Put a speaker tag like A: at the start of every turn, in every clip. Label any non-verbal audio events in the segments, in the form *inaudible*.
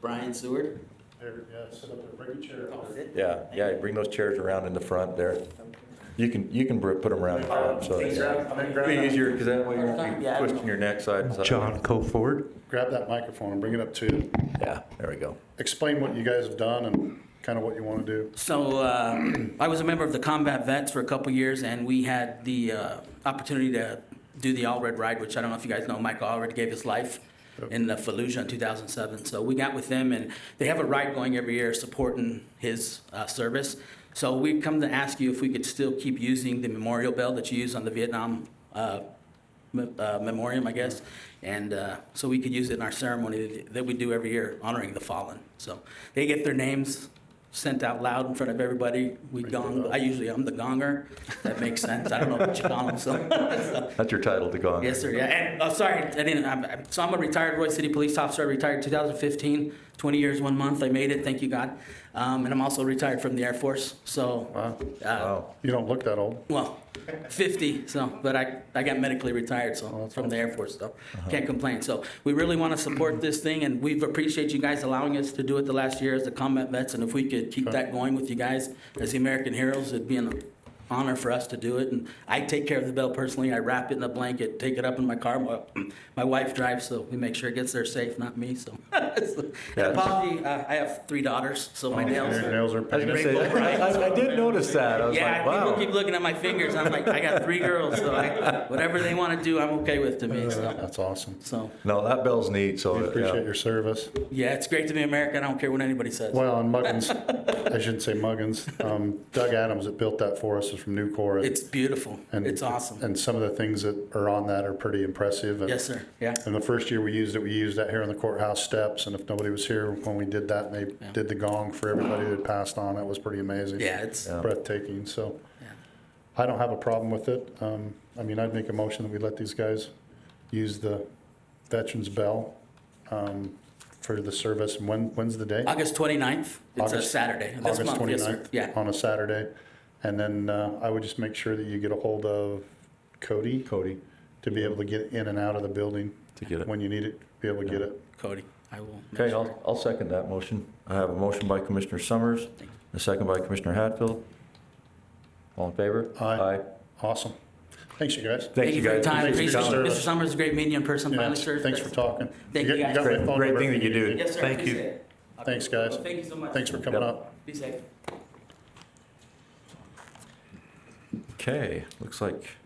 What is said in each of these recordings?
A: Brian Seward.
B: There, yeah, sit up there, bring your chair. up there.
C: Yeah, yeah, bring those chairs around in the front there. You can, you can br- put them around the front, so
B: Hey,
C: it'd
B: grab- hey, grab
C: be
B: that-
C: easier, because that way you're not
A: Yeah.
C: twisting your neck side to side.
D: John Coford.
B: Grab that microphone and bring it up to,
C: Yeah, there we go.
B: explain what you guys have done and kind of what you want to do.
A: So uh, *clears throat* I was a member of the combat vets for a couple years, and we had the uh, opportunity to do the Allred Ride, which I don't know if you guys know, Michael Allred gave his life in the Fallujah in 2007. So we got with them, and they have a ride going every year supporting his uh, service. So we've come to ask you if we could still keep using the memorial bell that you use on the Vietnam uh, me- uh, memoriam, I guess, and uh, so we could use it in our ceremony that we do every year honoring the fallen. So they get their names sent out loud in front of everybody. We gong. I usually I'm the gonger. That makes sense. I don't know about Chicano, so
C: That's your title to go on.
A: Yes, sir. Yeah. And, oh, sorry, I didn't. I'm, I'm- so I'm a retired Roy City Police officer. I retired 2015, 20 years, one month. I made it. Thank you, God. Um, and I'm also retired from the Air Force. So,
B: Wow,
A: uh,
C: Wow.
B: you don't look that old.
A: well, 50. So, but I, I got medically retired. So
B: that's
A: from the Air Force, so can't complain. So we really want to support this thing, and we appreciate you guys allowing us to do it the last year as the combat vets. And if we could keep that going with you guys as the American heroes, it'd be an honor for us to do it. And I take care of the bell personally. I wrap it in a blanket, take it up in my car. My, *clears throat* my wife drives, so we make sure it gets there safe, not me. So, *laughs* and apology, uh, I have three daughters, so my nails.
B: Your
A: are-
B: Nails are
C: I was
B: painted.
C: gonna say, I, I did notice that. I was
A: yeah,
C: like,
A: people keep
C: wow.
A: looking at my fingers. I'm like, I got three girls, so I, whatever they want to do, I'm okay with to me. So,
B: That's awesome.
A: so
C: No, that bell's neat, so.
B: We
C: yeah.
B: appreciate your service.
A: yeah, it's great to be American. I don't care what anybody says.
B: Well, and Muggins, I shouldn't say Muggins, um, Doug Adams that built that for us is from Newcore.
A: It's beautiful.
B: and-
A: it's awesome.
B: And some of the things that are on that are pretty impressive. And-
A: yes, sir. Yeah.
B: And the first year we used it, we used that here on the courthouse steps. And if nobody was here when we did that, and they did the gong for everybody that passed on, that was pretty amazing.
A: Yeah, it's
B: Breathtaking, so.
A: Yeah.
B: I don't have a problem with it. Um, I mean, I'd make a motion that we let these guys use the Veterans Bell, um, for the service. And When, when's the day?
A: August 29th. It's a
B: August-
A: Saturday. This
B: August
A: month, yes, sir.
B: 29th?
A: Yeah.
B: On a Saturday. And then, uh, I would just make sure that you get a hold of Cody
C: Cody,
B: to be able to get in and out of the building
C: to get it.
B: when you need it, be able to get it.
A: Cody, I will. make
C: Okay,
A: sure.
C: I'll, I'll second that motion. I have a motion by Commissioner Summers, a second by Commissioner Hatfield. All in favor?
B: Aye. Awesome. Thanks, you guys.
A: Thank you for your time.
B: Thanks for
A: Appreciate
B: coming.
A: it. Mr. Summers is a great meeting in person.
B: Yeah,
A: Finally, sir.
B: Thanks for talking.
A: Thank
B: got-
A: you, guys.
B: got my phone
C: Great
B: number.
C: thing that you do.
A: Yes, sir.
D: Thank you.
A: Appreciate it.
B: Thanks, guys.
A: Thank you so much.
B: Thanks for coming
C: Yep.
B: up.
A: Be safe.
C: Okay, looks like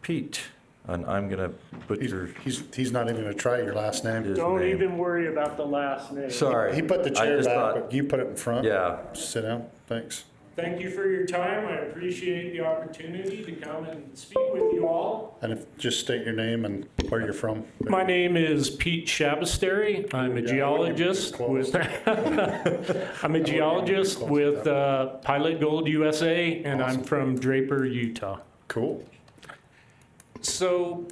C: Pete, and I'm gonna
B: He's,
C: butcher
B: he's, he's not even gonna try your last name.
C: his
E: Don't
C: name.
E: even worry about the last name.
C: Sorry.
B: He put the
C: I
B: chair
C: just
B: back,
C: thought-
B: but you put it in front.
C: Yeah,
B: Sit down. Thanks.
E: Thank you for your time. I appreciate the opportunity to come and speak with you all.
B: And if, just state your name and where you're from.
E: My name is Pete Shabastary. I'm a
B: Yeah, I wouldn't even
E: geologist with, *laughs* I'm a geologist
B: close
E: with uh, Pilot Gold USA, and I'm from Draper, Utah.
B: Cool.
E: So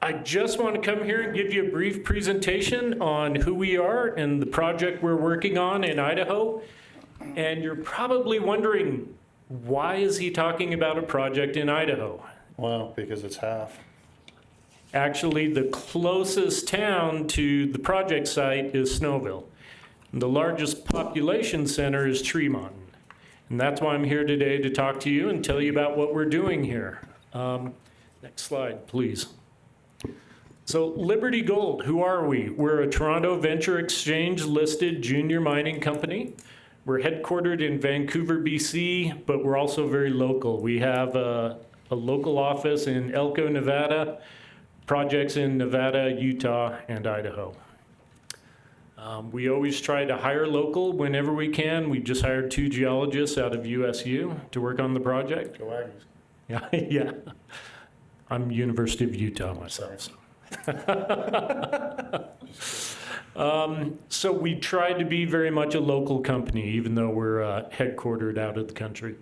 E: I just want to come here and give you a brief presentation on who we are and the project we're working on in Idaho. And you're probably wondering, why is he talking about a project in Idaho?
B: Wow, because it's half.
E: Actually, the closest town to the project site is Snowville. The largest population center is Tremont. And that's why I'm here today to talk to you and tell you about what we're doing here. Um, next slide, please. So, Liberty Gold, who are we? We're a Toronto Venture Exchange listed junior mining company. We're headquartered in Vancouver, BC, but we're also very local. We have a, a local office in Elko, Nevada, projects in Nevada, Utah, and Idaho. Um, we always try to hire local whenever we can. We just hired two geologists out of USU to work on the project.
B: Go Aggies.
E: Yeah, *laughs* yeah. I'm University of Utah myself. *laughs* So. um, so we try to be very much a local company, even though we're uh, headquartered out of the country.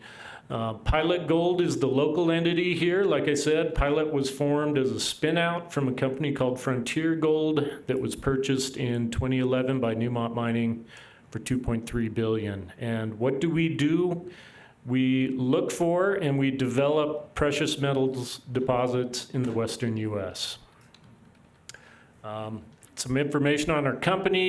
E: Uh, Pilot Gold is the local entity here. Like I said, Pilot was formed as a spinout from a company called Frontier Gold that was purchased in 2011 by Newmont Mining for 2.3 billion. And what do we do? We look for and we develop precious metals deposits in the western U.S. Um, some information on our company.